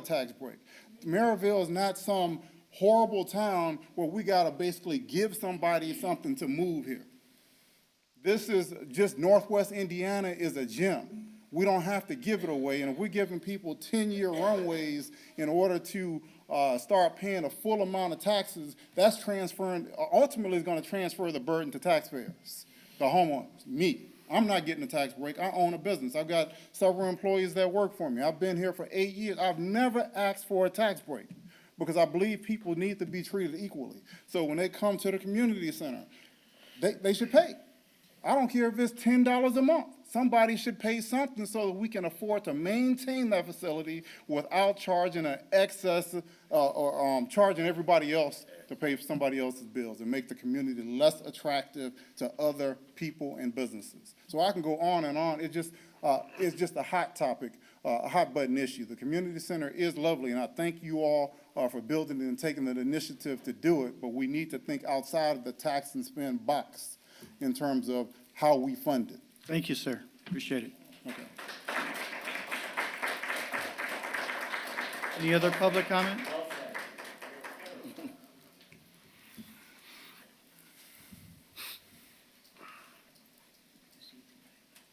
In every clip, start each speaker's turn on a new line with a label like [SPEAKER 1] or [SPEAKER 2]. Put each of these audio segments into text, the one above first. [SPEAKER 1] tax break. Maryville is not some horrible town where we gotta basically give somebody something to move here. This is, just Northwest Indiana is a gem. We don't have to give it away, and if we're giving people ten-year runways in order to, uh, start paying a full amount of taxes, that's transferring, uh, ultimately is gonna transfer the burden to taxpayers, the homeowners, me. I'm not getting a tax break. I own a business. I've got several employees that work for me. I've been here for eight years. I've never asked for a tax break because I believe people need to be treated equally. So when they come to the community center, they, they should pay. I don't care if it's ten dollars a month. Somebody should pay something so that we can afford to maintain that facility without charging an excess, uh, or, um, charging everybody else to pay for somebody else's bills and make the community less attractive to other people and businesses. So I can go on and on. It just, uh, it's just a hot topic, uh, a hot button issue. The community center is lovely and I thank you all, uh, for building it and taking the initiative to do it, but we need to think outside of the tax and spend box in terms of how we fund it.
[SPEAKER 2] Thank you, sir. Appreciate it. Any other public comment?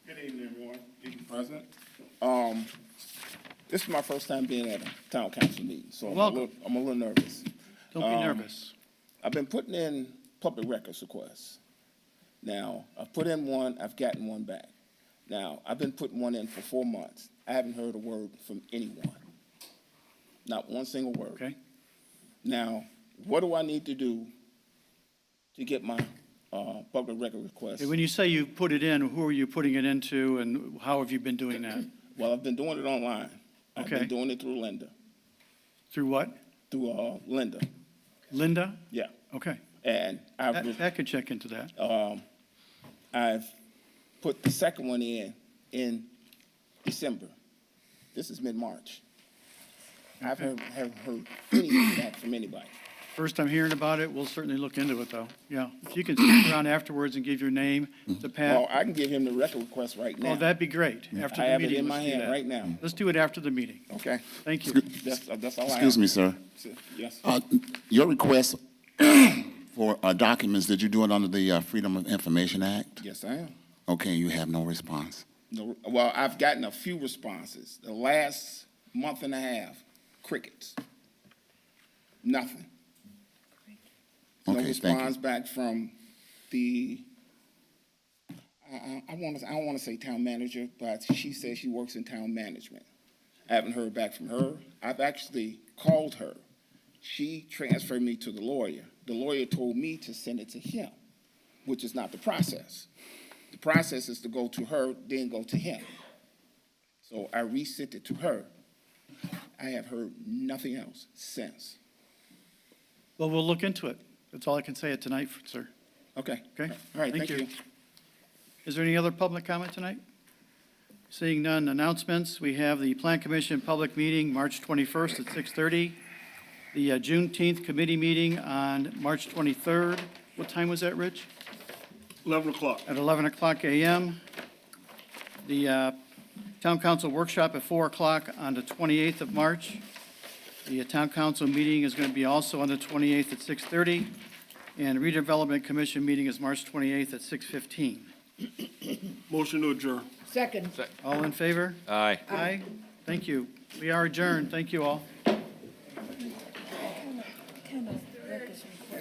[SPEAKER 3] Good evening, everyone. Evening, President. Um, this is my first time being at a town council meeting, so I'm a
[SPEAKER 2] Welcome.
[SPEAKER 3] little, I'm a little nervous.
[SPEAKER 2] Don't be
[SPEAKER 3] Um,
[SPEAKER 2] nervous.
[SPEAKER 3] I've been putting in public records requests. Now, I've put in one, I've gotten one back. Now, I've been putting one in for four months. I haven't heard a word from anyone. Not one single word.
[SPEAKER 2] Okay?
[SPEAKER 3] Now, what do I need to do to get my, uh, public record request?
[SPEAKER 2] Hey, When you say you put it in, who are you putting it into and how have you been doing that?
[SPEAKER 3] Well, I've been doing it online. I've
[SPEAKER 2] Okay.
[SPEAKER 3] been doing it through Linda,
[SPEAKER 2] Through what?
[SPEAKER 3] through, uh, Linda,
[SPEAKER 2] Linda?
[SPEAKER 3] yeah.
[SPEAKER 2] Okay.
[SPEAKER 3] And I've,
[SPEAKER 2] That, that could check into that.
[SPEAKER 3] um, I've put the second one in, in December. This is mid-March. I haven't, haven't heard anything back from anybody.
[SPEAKER 2] First I'm hearing about it, we'll certainly look into it, though. Yeah. If you can stick around afterwards and give your name to
[SPEAKER 3] Well,
[SPEAKER 2] Pat,
[SPEAKER 3] I can give him the record request right
[SPEAKER 2] oh,
[SPEAKER 3] now.
[SPEAKER 2] that'd be great. After
[SPEAKER 3] I
[SPEAKER 2] the
[SPEAKER 3] have it
[SPEAKER 2] meeting,
[SPEAKER 3] in my
[SPEAKER 2] let's do
[SPEAKER 3] hand right
[SPEAKER 2] that.
[SPEAKER 3] now,
[SPEAKER 2] Let's do it after the meeting.
[SPEAKER 3] okay?
[SPEAKER 2] Thank you.
[SPEAKER 3] That's, that's all Oh, I have.
[SPEAKER 4] Excuse me, sir.
[SPEAKER 3] Yes,
[SPEAKER 4] Uh, Your request for uh, documents, did you do it under the uh, Freedom of Information Act?
[SPEAKER 3] yes, I am.
[SPEAKER 4] Okay, you have no response.
[SPEAKER 3] No, well, I've gotten a few responses. The last month and a half, crickets. Nothing. No
[SPEAKER 4] Okay, thank
[SPEAKER 3] response
[SPEAKER 4] you.
[SPEAKER 3] back from the, I, I, I want to, I don't want to say town manager, but she says she works in town management. I haven't heard back from her. I've actually called her. She transferred me to the lawyer. The lawyer told me to send it to him, which is not the process. The process is to go to her, then go to him. So I resent it to her. I have heard nothing else since.
[SPEAKER 2] Well, we'll look into it. That's all I can say at tonight, sir.
[SPEAKER 3] Okay.
[SPEAKER 2] Okay.
[SPEAKER 3] All right, thank you.
[SPEAKER 2] Is there any other public comment tonight? Seeing none, announcements. We have the Plan Commission public meeting, March 21st at 6:30. The uh, Juneteenth committee meeting on March 23rd. What time was that, Rich?
[SPEAKER 5] 11 o'clock.
[SPEAKER 2] At 11 o'clock a.m. The uh, Town Council workshop at 4 o'clock on the 28th of March. The uh, Town Council meeting is going to be also on the 28th at 6:30. And redevelopment commission meeting is March 28th at 6:15.
[SPEAKER 5] Motion to adjourn.
[SPEAKER 6] Second.
[SPEAKER 2] All in favor?
[SPEAKER 7] Aye.
[SPEAKER 2] Aye. Thank you. We are adjourned. Thank you all.
[SPEAKER 6] Kind of records request.